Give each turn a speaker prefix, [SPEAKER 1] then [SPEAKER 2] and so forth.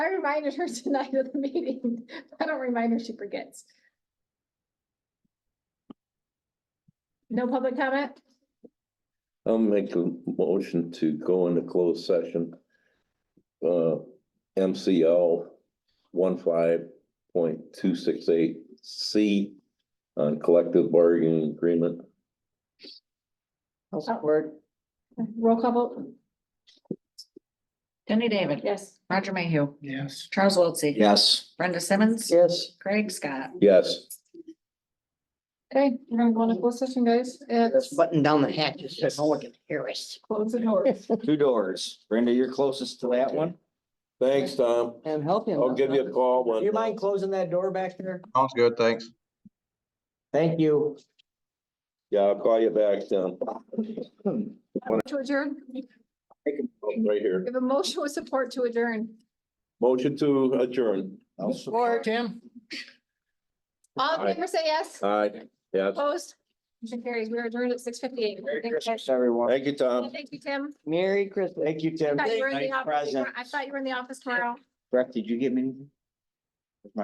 [SPEAKER 1] reminded her tonight at the meeting. I don't remind her, she forgets. No public comment?
[SPEAKER 2] I'll make a motion to go into closed session. Uh, MCL one point two six eight C on collective bargaining agreement.
[SPEAKER 3] I'll
[SPEAKER 4] Oh.
[SPEAKER 3] support.
[SPEAKER 1] Roll call vote?
[SPEAKER 5] Jenny David.
[SPEAKER 1] Yes.
[SPEAKER 5] Roger Mayhew.
[SPEAKER 3] Yes.
[SPEAKER 5] Charles Wiltie.
[SPEAKER 4] Yes.
[SPEAKER 5] Brenda Simmons.
[SPEAKER 3] Yes.
[SPEAKER 5] Craig Scott.
[SPEAKER 2] Yes,
[SPEAKER 1] Okay, we're gonna go into closed session, guys. It's
[SPEAKER 3] Let's button down the hatches so no one can hear us.
[SPEAKER 1] close the door.
[SPEAKER 4] Two doors. Brenda, you're closest to that one.
[SPEAKER 2] thanks, Tom.
[SPEAKER 3] I'm helping.
[SPEAKER 2] I'll give you a call
[SPEAKER 3] Do
[SPEAKER 2] when.
[SPEAKER 3] you mind closing that door back there?
[SPEAKER 6] Sounds good, thanks.
[SPEAKER 3] Thank you.
[SPEAKER 2] Yeah, I'll call you back, Tom.
[SPEAKER 1] To adjourn,
[SPEAKER 2] Right here.
[SPEAKER 1] we have a motion with support to adjourn.
[SPEAKER 2] Motion to adjourn.
[SPEAKER 3] Support, Tim.
[SPEAKER 1] All in favor, say yes.
[SPEAKER 2] Aye, yes.
[SPEAKER 1] Opposed? Motion carries. We are adjourned at six fifty-eight.
[SPEAKER 4] Merry
[SPEAKER 1] Thank you.
[SPEAKER 4] Christmas, everyone.
[SPEAKER 2] Thank you, Tom.
[SPEAKER 1] Thank you, Tim.
[SPEAKER 3] Merry Christmas.
[SPEAKER 4] Thank you,
[SPEAKER 1] I
[SPEAKER 4] Tim.
[SPEAKER 1] thought you were in the
[SPEAKER 4] Nice
[SPEAKER 1] office.
[SPEAKER 4] present.
[SPEAKER 1] I thought you were in the office tomorrow.
[SPEAKER 4] Brett, did you get me? anything?